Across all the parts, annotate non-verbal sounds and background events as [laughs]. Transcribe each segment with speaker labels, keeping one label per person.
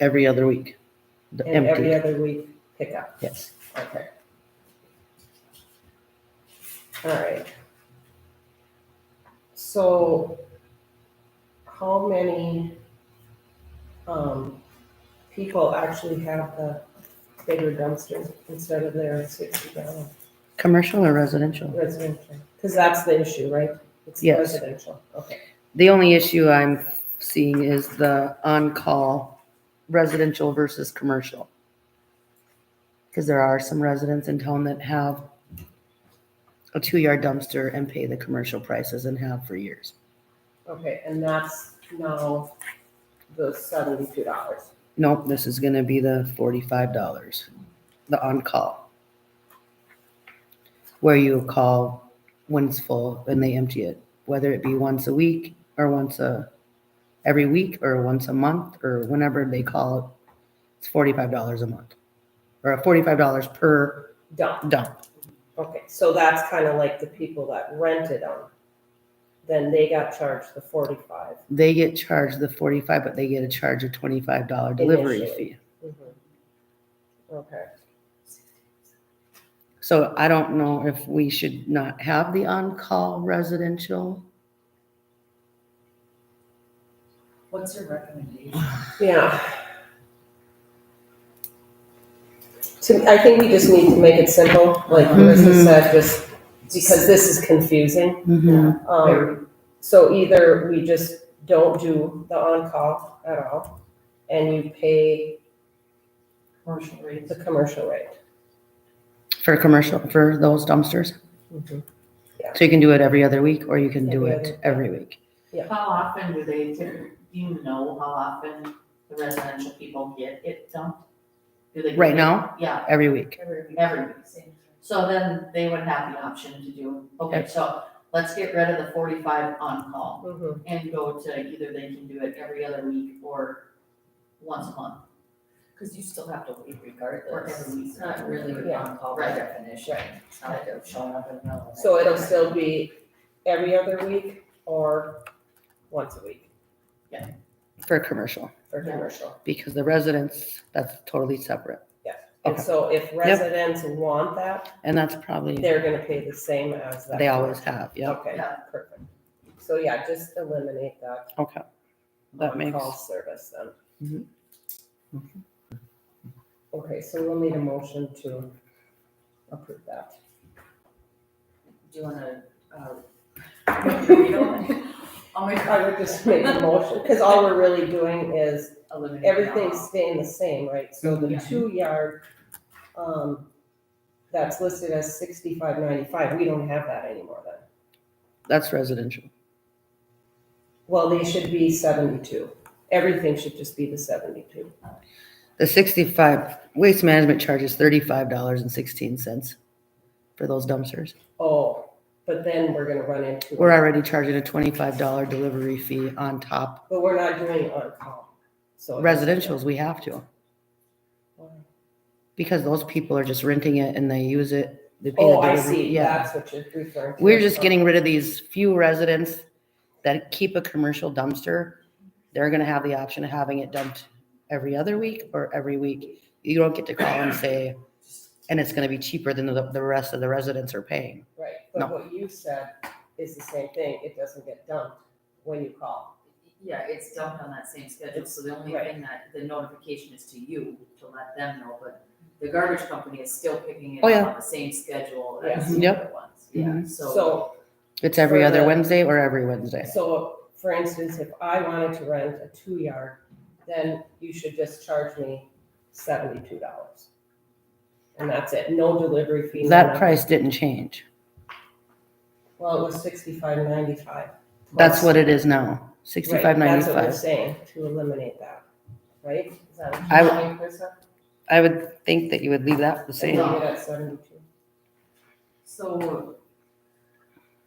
Speaker 1: every other week. The
Speaker 2: and every
Speaker 1: Empty,
Speaker 2: other week pickup,
Speaker 1: yes.
Speaker 2: okay. All right. So how many, um, people actually have the bigger dumpster instead of their sixty gallon
Speaker 1: Commercial or residential?
Speaker 2: residential? Cause that's the issue, right? It's
Speaker 1: Yes.
Speaker 2: Residential, okay,
Speaker 1: The only issue I'm seeing is the on-call residential versus commercial. Because there are some residents in town that have a two-yard dumpster and pay the commercial prices and have for years.
Speaker 2: okay, and that's now the seventy-two dollars.
Speaker 1: Nope, this is gonna be the forty-five dollars, the on-call. Where you call when it's full and they empty it, whether it be once a week or once a, every week or once a month or whenever they call it. It's forty-five dollars a month, or forty-five dollars per
Speaker 2: Done.
Speaker 1: dump.
Speaker 2: Okay, so that's kind of like the people that rented them. Then they got charged the forty-five.
Speaker 1: They get charged the forty-five, but they get a charge of twenty-five dollar delivery
Speaker 2: Initially.
Speaker 1: fee.
Speaker 2: Okay,
Speaker 1: So I don't know if we should not have the on-call residential.
Speaker 3: What's your recommendation?
Speaker 2: yeah. To, I think we just need to make it simple, like Marissa
Speaker 1: Mhm.
Speaker 2: said, just because this is confusing.
Speaker 3: Very.
Speaker 2: Um, so either we just don't do the on-call at all, and you pay
Speaker 3: Commercial rates.
Speaker 2: the commercial rate.
Speaker 1: For commercial, for those dumpsters. So you can do it every other week or you can do
Speaker 2: Every
Speaker 1: it
Speaker 2: other-
Speaker 1: every week.
Speaker 3: How often do they, do you know how often the residential people get it dumped? Do they? get
Speaker 1: Right
Speaker 3: it-
Speaker 1: now?
Speaker 3: Yeah,
Speaker 1: Every week.
Speaker 3: every week. So then they would have the option to do, okay, so let's get rid of the forty-five on-call
Speaker 2: Mhm.
Speaker 3: and go to either they can do it every other week or once a month.
Speaker 4: Because you still have to leave
Speaker 3: Or
Speaker 4: regardless.
Speaker 3: every week.
Speaker 4: It's not really
Speaker 2: Yeah.
Speaker 4: on call by
Speaker 3: Right.
Speaker 4: definition. It's not like they're showing up in the middle of the night.
Speaker 2: So it'll still be every other week or once a week
Speaker 1: For commercial,
Speaker 2: for
Speaker 3: Yeah.
Speaker 2: commercial?
Speaker 1: because the residents, that's totally separate.
Speaker 2: And
Speaker 1: Okay.
Speaker 2: so if residents want that,
Speaker 1: And that's probably,
Speaker 2: they're gonna pay the same as that.
Speaker 1: they always have, yep.
Speaker 2: Okay,
Speaker 3: Yeah.
Speaker 2: perfect. So yeah, just eliminate that
Speaker 1: Okay, that makes,
Speaker 2: on-call service then. Mm-hmm.
Speaker 1: Mhm.
Speaker 2: Okay, so we'll need a motion to approve that.
Speaker 4: Do you wanna, uh? [laughs] I'll make
Speaker 2: I would just make a motion, because all we're really doing is
Speaker 4: eliminate.
Speaker 2: everything's staying the same, right? So the
Speaker 4: Yeah.
Speaker 2: two yard, um, that's listed as sixty-five ninety-five, we don't have that anymore then.
Speaker 1: that's residential.
Speaker 2: Well, they should be seventy-two, everything should just be the seventy-two.
Speaker 1: The sixty-five, Waste Management charges thirty-five dollars and sixteen cents for those dumpsters.
Speaker 2: Oh, but then we're gonna run into,
Speaker 1: We're already charging a twenty-five dollar delivery fee on top.
Speaker 2: but we're not doing on-call, so.
Speaker 1: Residential's, we have to, because those people are just renting it and they use it. they pay the
Speaker 2: Oh, I
Speaker 1: delivery-
Speaker 2: see,
Speaker 1: Yeah.
Speaker 2: that's what you're referring to.
Speaker 1: We're just getting rid of these few residents that keep a commercial dumpster. They're gonna have the option of having it dumped every other week or every week. You don't get to call and say, and it's gonna be cheaper than the, the rest of the residents are paying.
Speaker 2: Right,
Speaker 1: No.
Speaker 2: but what you said is the same thing, it doesn't get dumped when you call.
Speaker 4: Yeah, it's dumped on that same schedule, so the only
Speaker 2: Right.
Speaker 4: thing that, the notification is to you, to let them know, but the garbage company is still picking it
Speaker 1: Oh, yeah.
Speaker 4: up on the same schedule as the
Speaker 1: Yep.
Speaker 4: other ones, yeah, so.
Speaker 2: Mm-hmm. So
Speaker 1: It's every
Speaker 2: For
Speaker 1: other
Speaker 2: the-
Speaker 1: Wednesday or every Wednesday.
Speaker 2: So, for instance, if I wanted to rent a two-yard, then you should just charge me seventy-two dollars. And that's it, no delivery fee. no
Speaker 1: That
Speaker 2: nothing.
Speaker 1: price didn't change.
Speaker 2: Well, it was sixty-five ninety-five.
Speaker 1: That's what it is now, sixty-five
Speaker 2: That's what we're
Speaker 1: ninety-five.
Speaker 2: saying, to eliminate that, right? Is that what
Speaker 1: I
Speaker 2: you're saying, Krista?
Speaker 1: I would think that you would leave that the
Speaker 2: And
Speaker 1: same.
Speaker 2: leave it at seventy-two.
Speaker 4: So.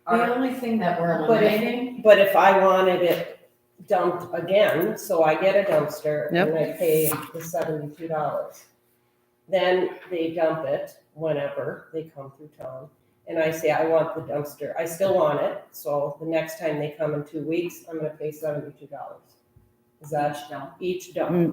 Speaker 3: The
Speaker 4: Our,
Speaker 3: only thing that we're
Speaker 2: But if-
Speaker 3: eliminating,
Speaker 2: But if I wanted it dumped again, so I get a dumpster
Speaker 1: Yep.
Speaker 2: and I pay the seventy-two dollars. Then they dump it whenever they come through town. And I say, I want the dumpster, I still want it, so the next time they come in two weeks, I'm gonna pay seventy-two dollars. Is that
Speaker 4: each dump.
Speaker 2: each dump?
Speaker 1: Mm,